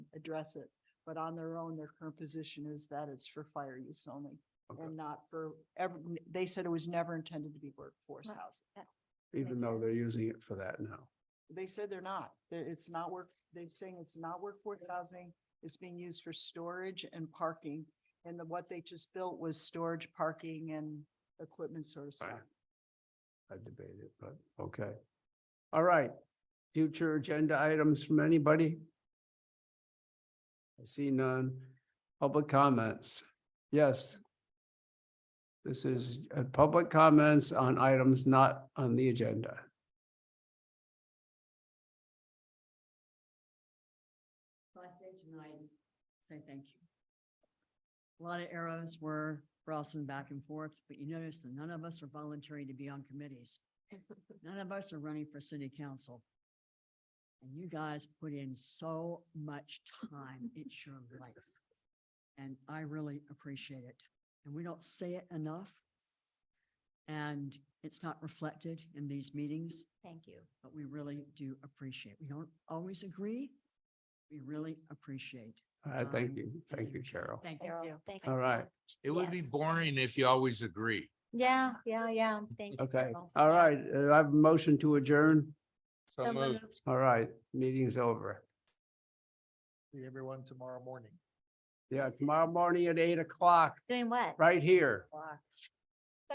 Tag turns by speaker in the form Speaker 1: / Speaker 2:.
Speaker 1: address it. But on their own, their current position is that it's for fire use only
Speaker 2: Okay.
Speaker 1: and not for ever, they said it was never intended to be workforce
Speaker 3: Right.
Speaker 1: housing.
Speaker 2: even
Speaker 3: Makes
Speaker 2: though they're
Speaker 3: sense.
Speaker 2: using it for that now.
Speaker 1: They said they're not, They're- it's not work, they're saying it's not workforce housing. It's being used for storage and parking. And the, what they just built was storage, parking and equipment sort of stuff.
Speaker 2: Right. I debated, it, but okay. All right, future agenda items from anybody? I see none. Public comments, yes. This is uh, public comments on items not on the agenda.
Speaker 4: Last day tonight, say thank you. A lot of arrows were crossing back and forth, but you notice that none of us are volunteering to be on committees. None of us are running for city council. And you guys put in so much time, it's your life. And I really appreciate it. And we don't say it enough. And it's not reflected in these meetings
Speaker 3: Thank you.
Speaker 4: but we really do appreciate. We don't always agree. We really appreciate.
Speaker 2: Uh, thank
Speaker 4: Um,
Speaker 2: you, thank you, Cheryl.
Speaker 4: Thank you.
Speaker 3: Carol, thank you.
Speaker 2: All right,
Speaker 5: It would be
Speaker 3: Yes.
Speaker 5: boring if you always agree.
Speaker 3: Yeah, yeah, yeah. Thank you.
Speaker 2: okay,
Speaker 3: Carol.
Speaker 2: all right, uh, I have a motion to adjourn.
Speaker 5: So moved.
Speaker 2: All right, meeting's over.
Speaker 6: See everyone tomorrow morning.
Speaker 2: Yeah, tomorrow morning at eight o'clock,
Speaker 3: Doing what?
Speaker 2: right here.